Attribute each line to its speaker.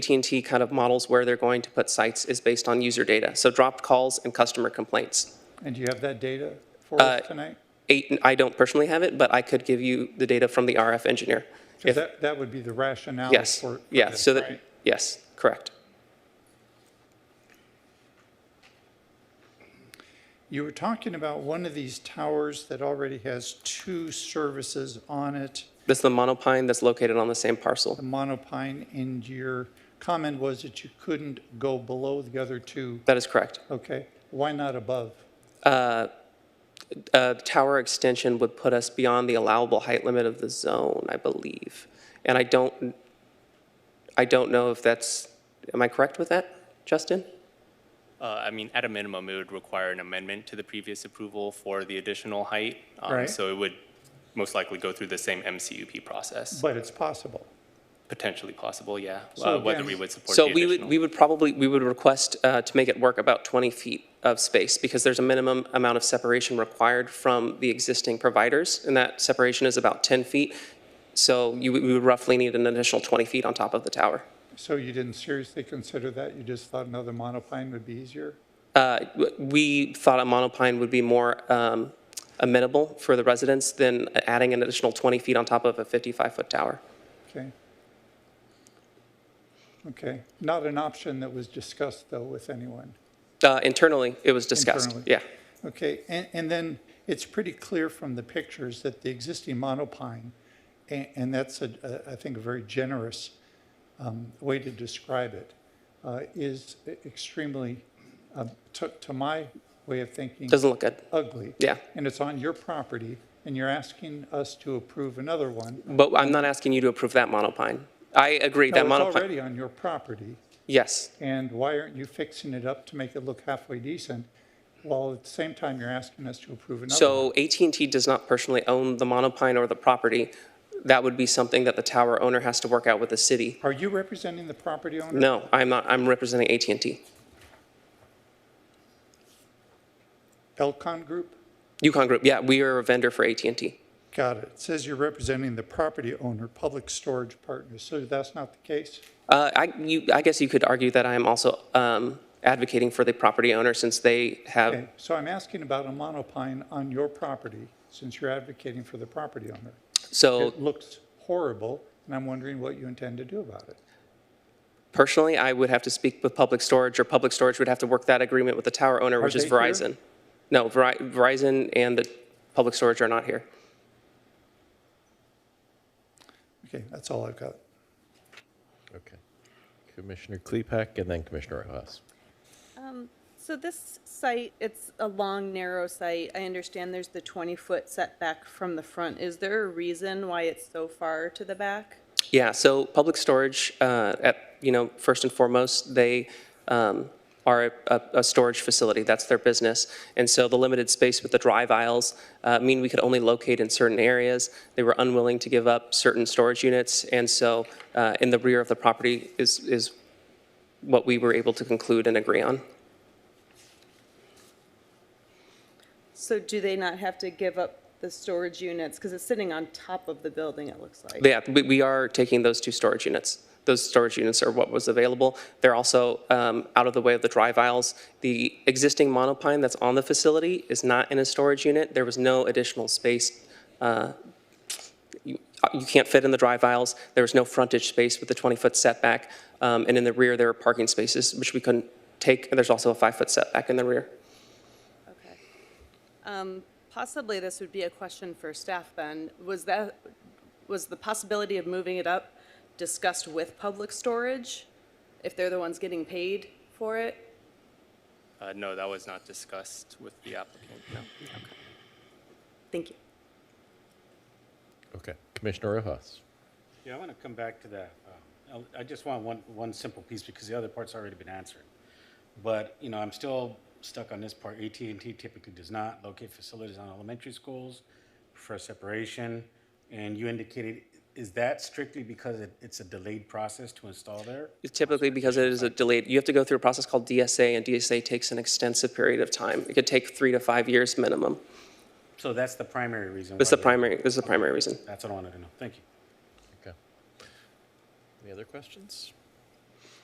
Speaker 1: AT&T kind of models where they're going to put sites is based on user data, so dropped calls and customer complaints.
Speaker 2: And do you have that data for
Speaker 1: Uh,
Speaker 2: us tonight?
Speaker 1: Eight, I don't personally have it, but I could give you the data from the RF engineer.
Speaker 2: 'Cause That, that would be the rationale
Speaker 1: Yes,
Speaker 2: for. for
Speaker 1: yeah,
Speaker 2: this,
Speaker 1: so that,
Speaker 2: right?
Speaker 1: yes, correct.
Speaker 2: You were talking about one of these towers that already has two services on it,
Speaker 1: This is the monopine that's located on the same parcel.
Speaker 2: the monopine, and your comment was that you couldn't go below the other two.
Speaker 1: That is correct.
Speaker 2: Okay, why not above?
Speaker 1: Uh, Tower extension would put us beyond the allowable height limit of the zone, I believe. And I don't, I don't know if that's, am I correct with that, Justin?
Speaker 3: Uh, I mean, at a minimum, it would require an amendment to the previous approval for the additional height. um,
Speaker 2: Right.
Speaker 3: So it would most likely go through the same MCUP process,
Speaker 2: But it's possible.
Speaker 3: potentially possible, yeah.
Speaker 2: So
Speaker 3: uh, Whether
Speaker 2: again-
Speaker 3: we would support the
Speaker 1: So we would,
Speaker 3: additional.
Speaker 1: we would probably, we would request uh, to make it work about 20 feet of space because there's a minimum amount of separation required from the existing providers, and that separation is about 10 feet. So you, would- we would roughly need an additional 20 feet on top of the tower.
Speaker 2: So you didn't seriously consider that? You just thought another monopine would be easier?
Speaker 1: Uh, w- We thought a monopine would be more um, amenable for the residents than adding an additional 20 feet on top of a 55-foot tower.
Speaker 2: Okay. Okay, not an option that was discussed, though, with anyone.
Speaker 1: Uh, Internally, it was discussed.
Speaker 2: Internally.
Speaker 1: Yeah,
Speaker 2: Okay, and, and then it's pretty clear from the pictures that the existing monopine, and, and that's a, a- I think, a very generous um, way to describe it, uh, is extremely, um, to, to my way of thinking,
Speaker 1: doesn't look good.
Speaker 2: ugly.
Speaker 1: Yeah.
Speaker 2: And it's on your property, and you're asking us to approve another one.
Speaker 1: But I'm not asking you to approve that monopine. I agree that
Speaker 2: No,
Speaker 1: monopine.
Speaker 2: It's already on your property,
Speaker 1: Yes.
Speaker 2: and why aren't you fixing it up to make it look halfway decent, while at the same time you're asking us to approve another? one?
Speaker 1: So at and t does not personally own the monopine or the property. That would be something that the tower owner has to work out with the city.
Speaker 2: Are you representing the property owner?
Speaker 1: No, I'm not, I'm representing at and t
Speaker 2: Elcon Group?
Speaker 1: Yukon Group, yeah, we are a vendor for at and t
Speaker 2: Got it. It says you're representing the property owner, Public Storage Partners, so that's not the case?
Speaker 1: Uh, I, you, I guess you could argue that I am also, um, advocating for the property owner since they have,
Speaker 2: Okay, so I'm asking about a monopine on your property, since you're advocating for the property owner.
Speaker 1: so
Speaker 2: It looks horrible, and I'm wondering what you intend to do about it.
Speaker 1: personally, I would have to speak with Public Storage or Public Storage would have to work that agreement with the tower owner, which is
Speaker 2: they here?
Speaker 1: Verizon. No, Veri- Verizon and the Public Storage are not here.
Speaker 2: Okay, that's all I've got.
Speaker 4: Okay. Commissioner Klepek and then Commissioner Rojas.
Speaker 5: So this site, it's a long, narrow site. I understand there's the 20-foot setback from the front. Is there a reason why it's so far to the back?
Speaker 1: Yeah, so public storage, uh, at, you know, first and foremost, they um, are a- a storage facility, that's their business. And so the limited space with the drive aisles uh, mean we could only locate in certain areas. They were unwilling to give up certain storage units, and so uh, in the rear of the property is, is what we were able to conclude and agree on.
Speaker 5: So do they not have to give up the storage units? Because it's sitting on top of the building, it looks like.
Speaker 1: Yeah, we, we are taking those two storage units. Those storage units are what was available. They're also um, out of the way of the drive aisles. The existing monopine that's on the facility is not in a storage unit. There was no additional space. uh, You uh, you can't fit in the drive aisles. There was no frontage space with the 20-foot setback. Um, And in the rear, there are parking spaces, which we couldn't take. And there's also a five-foot setback in the rear.
Speaker 5: Okay. Um, Possibly this would be a question for staff then. Was that, was the possibility of moving it up discussed with Public Storage? If they're the ones getting paid for it?
Speaker 3: Uh, No, that was not discussed with the applicant, no.
Speaker 5: Thank you.
Speaker 4: Okay. Commissioner Rojas.
Speaker 6: Yeah, I want to come back to that. Um, I I just want one, one simple piece because the other part's already been answered. But, you know, I'm still stuck on this part. at and t typically does not locate facilities on elementary schools, prefer separation. And you indicated, is that strictly because it, it's a delayed process to install there?
Speaker 1: Typically, because it is a delayed, you have to go through a process called DSA, and DSA takes an extensive period of time. It could take three to five years minimum.
Speaker 6: So that's the primary reason.
Speaker 1: This is
Speaker 6: why
Speaker 1: the
Speaker 6: they-
Speaker 1: primary, this is the primary reason.
Speaker 6: That's what I wanted to know. Thank you.
Speaker 4: Okay. Any other questions?